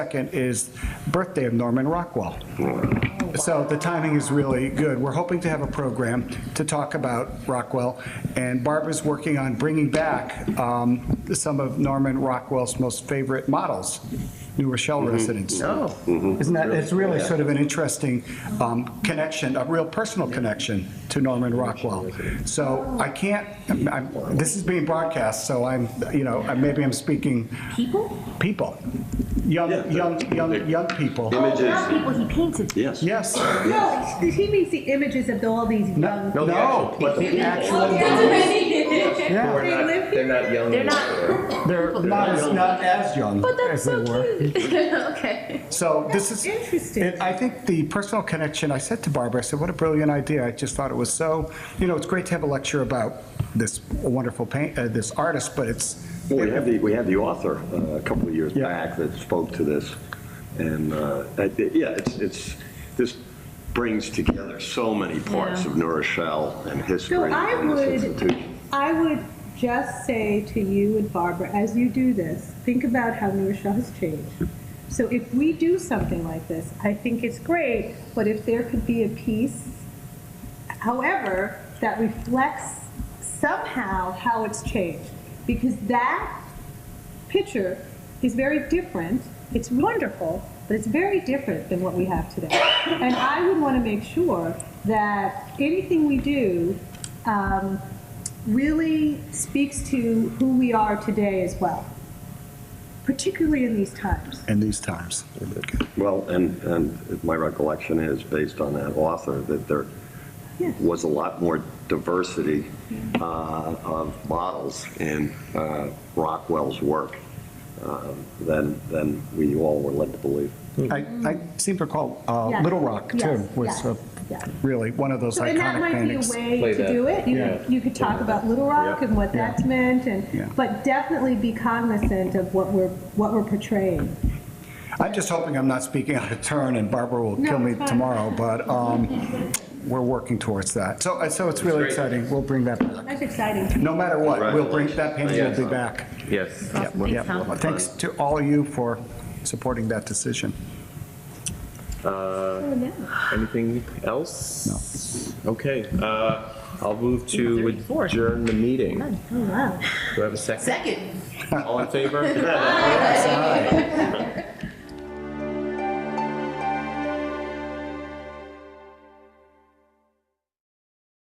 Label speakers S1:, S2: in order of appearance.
S1: Second is birthday of Norman Rockwell. So the timing is really good. We're hoping to have a program to talk about Rockwell, and Barbara's working on bringing back um, some of Norman Rockwell's most favorite models, New Rochelle residents. Oh. Isn't that, it's really sort of an interesting um, connection, a real personal connection to Norman Rockwell. So I can't, I'm- I'm- this is being broadcast, so I'm, you know, maybe I'm speaking. People? People.
S2: Yeah,
S1: Young,
S2: the-
S1: young, young,
S2: the-
S1: young people.
S2: Images,
S3: Not people he painted.
S2: yes.
S1: Yes.
S4: No, he means the images of all these young.
S1: No, no, but the actual, yeah,
S4: They live
S5: They're not young.
S3: They're not-
S5: anymore.
S1: they're not as, not as young
S3: But that's
S1: as they
S3: so
S1: were.
S3: cute. okay.
S1: So this is.
S4: Interesting.
S1: it- I think the personal connection, I said to Barbara, I said, what a brilliant idea. I just thought it was so, you know, it's great to have a lecture about this wonderful paint, uh, this artist, but it's,
S2: Well, We had the, we had the author uh, a couple of years
S1: Yeah.
S2: back that spoke to this. And, uh, I thi- yeah, it's, it's, this brings together so many parts of New Rochelle and
S4: So I
S2: history and this
S4: would,
S2: institution.
S4: I would just say to you and Barbara, as you do this, think about how New Rochelle has changed. So if we do something like this, I think it's great, but if there could be a piece, however, that reflects somehow how it's changed. Because that picture is very different. It's wonderful, but it's very different than what we have today. And I would want to make sure that anything we do um, really speaks to who we are today as well, particularly in these times.
S1: in these times.
S2: Well, and, and my recollection is, based on that author, that there
S4: Yeah.
S2: was a lot more diversity
S4: Mm-hmm.
S2: uh, of models in uh, Rockwell's work uh, than, than we all were led to believe.
S1: I,
S2: Mm-hmm.
S1: I seem to recall uh,
S4: Yeah.
S1: Little Rock too,
S4: Yes,
S1: was
S4: yes,
S1: uh,
S4: yeah.
S1: really one of those
S4: So, and that
S1: iconic
S4: might be
S1: paintings.
S4: a way
S5: Play
S4: to
S5: that.
S4: do it. You, could- you could talk about Little Rock and what
S1: Yeah.
S4: that's meant, and
S1: Yeah.
S4: but definitely be cognizant of what we're what we're portraying.
S1: I'm just hoping I'm not speaking out of turn and Barbara will
S4: No,
S1: kill me
S4: it's fine.
S1: tomorrow, but um, we're working towards that. So, uh, so it's really
S5: That's great.
S1: exciting. We'll bring that back.
S4: That's exciting.
S1: No matter what, we'll bring, that painting will be
S2: Congratulations.
S1: back.
S5: Yes.
S1: Yeah,
S3: Awesome.
S1: yeah.
S3: Thanks, Tom.
S1: Thanks to all of you for supporting that decision.
S5: Uh, Anything else? No. Okay, uh, I'll move to adjourn the meeting. Do
S3: Oh, wow.
S5: I have a second?
S6: Second.
S5: All in favor?